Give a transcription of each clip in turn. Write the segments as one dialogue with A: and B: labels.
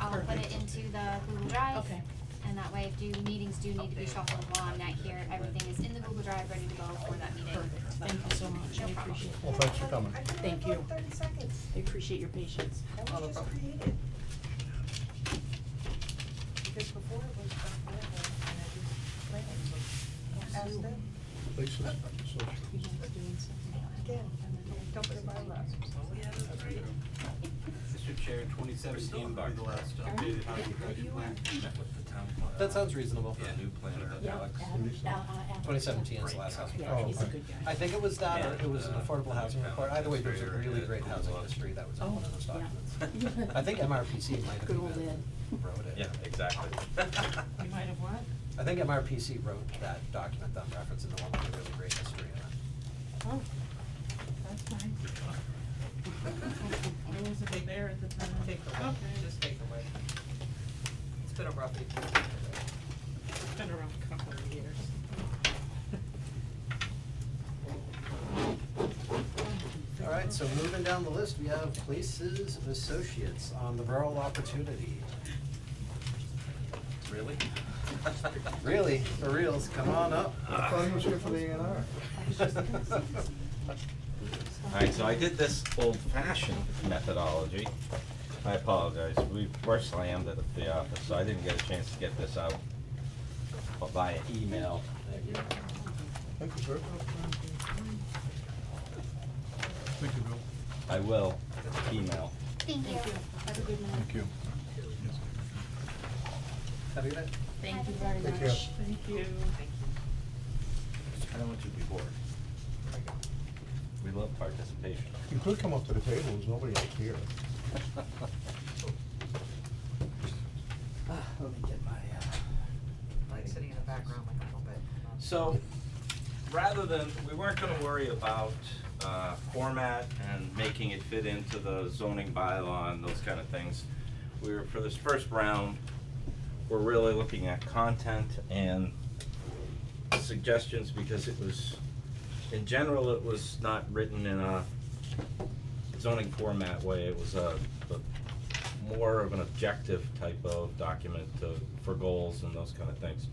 A: I'll put it into the Google Drive.
B: Okay.
A: And that way, if do, meetings do need to be shuffled while I'm not here, everything is in the Google Drive, ready to go for that meeting.
B: Perfect, thank you so much,
A: No
B: I
A: problem.
B: appreciate
C: Well,
B: it.
C: thanks for coming.
B: Thank you.
D: Thirty seconds,
B: I appreciate your patience.
D: that was just created. Because before it was, uh, and it was planning, so ask them,
C: Lisa's-
B: You
C: so-
B: guys doing something?
D: again, don't put it by last.
E: Mr. Chair, twenty-seven seemed to be the last updated comprehensive plan.
F: That sounds reasonable.
E: New plan of the
B: Yeah,
E: Alex.
B: Adam, uh, Adam.
F: 2017 is the last house.
B: Yeah, he's a
C: Oh, okay.
B: good guy.
F: I think it was that, or it was an affordable housing report, either way, there's a really great housing history that was in one of those
B: Oh, yeah.
F: documents. I think MRPC might have
B: Good old
F: even
B: Ed.
F: wrote it.
G: Yeah, exactly.
B: You might have what?
F: I think MRPC wrote that document that I'm referencing, the one with the really great history in it.
H: Oh, that's fine. I wasn't there at the time. Take away, just take away. It's been a rough eight years. It's been a rough couple of years.
F: All right, so moving down the list, we have Places of Associates on the rural opportunity.
G: Really?
F: Really, for reals, come on up.
C: I thought he was here for the A and R.
B: I was just gonna say this.
G: Alright, so I did this old fashioned methodology. I apologize, we were slammed at the office, so I didn't get a chance to get this out via email.
C: Thank you, sir. Thank you, Bill.
G: I will email.
A: Thank you.
B: Have a good night.
C: you.
F: Have a good night.
B: Thank you very
C: Take
B: much.
C: care.
H: Thank you.
G: I don't want you to be bored. We love participation.
C: You could come up to the table, there's nobody else here.
F: Ah, Let me get my, uh.
D: Like sitting in the background like a little bit.
G: So, rather than, we weren't gonna worry about, uh, format and making it fit into the zoning bylaw and those kind of things. We were, for this first round, we're really looking at content and suggestions because it was, in general, it was not written in a zoning format way. It was a, a more of an objective type of document to, for goals and those kind of things.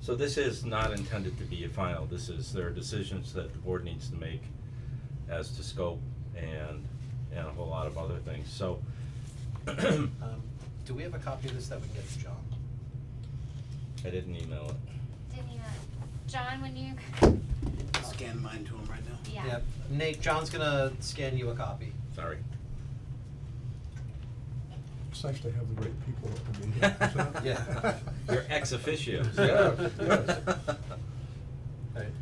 G: So this is not intended to be a final, this is, there are decisions that the board needs to make as to scope and, and a whole lot of other things, so.
F: Um, do we have a copy of this that we can get to John?
G: I didn't email it.
A: Didn't you, John, when you,
E: Scan mine to him right now.
A: yeah,
F: Nate, John's gonna scan you a copy.
G: Sorry.
C: It's nice to have the right people up to be here. so.
F: Yeah.
G: You're ex officio.
C: Yeah, yes.
F: Alright,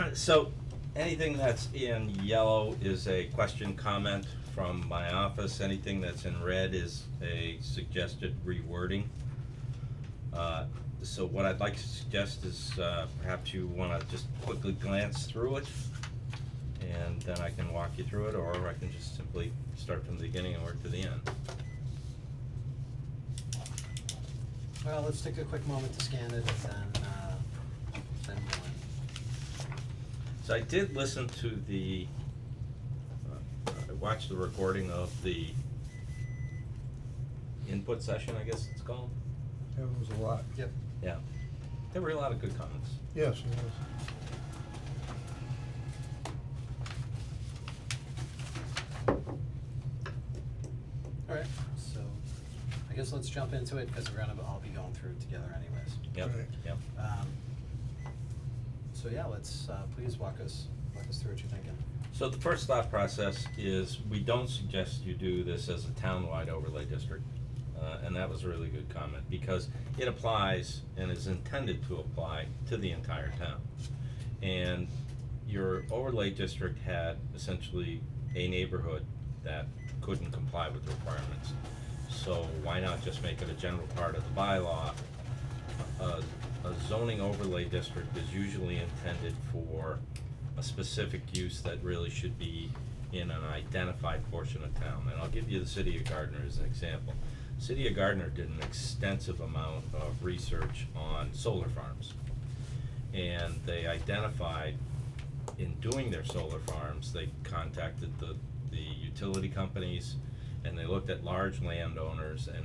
F: okay.
G: So, anything that's in yellow is a question, comment from my office. Anything that's in red is a suggested rewording. Uh, So what I'd like to suggest is uh, perhaps you wanna just quickly glance through it, and then I can walk you through it, or I can just simply start from the beginning and work to the end.
F: Well, let's take a quick moment to scan it and then, uh, then we'll.
G: So I did listen to the, uh, I watched the recording of the input session, I guess it's called.
C: Yeah, it was a lot.
F: Yep.
G: Yeah. There were a lot of good comments.
C: Yes, it was.
F: Alright, so I guess let's jump into it because we're gonna all be going through it together anyways.
G: Yep,
C: Right.
G: yep.
F: Um, so yeah, let's, uh, please walk us, walk us through what you're thinking.
G: So the first thought process is we don't suggest you do this as a townwide overlay district. Uh, and that was a really good comment because it applies and is intended to apply to the entire town. And your overlay district had essentially a neighborhood that couldn't comply with the requirements. So why not just make it a general part of the bylaw? A, a zoning overlay district is usually intended for a specific use that really should be in an identified portion of town, and I'll give you the city of Gardner as an example. City of Gardner did an extensive amount of research on solar farms. And they identified, in doing their solar farms, they contacted the, the utility companies, and they looked at large landowners and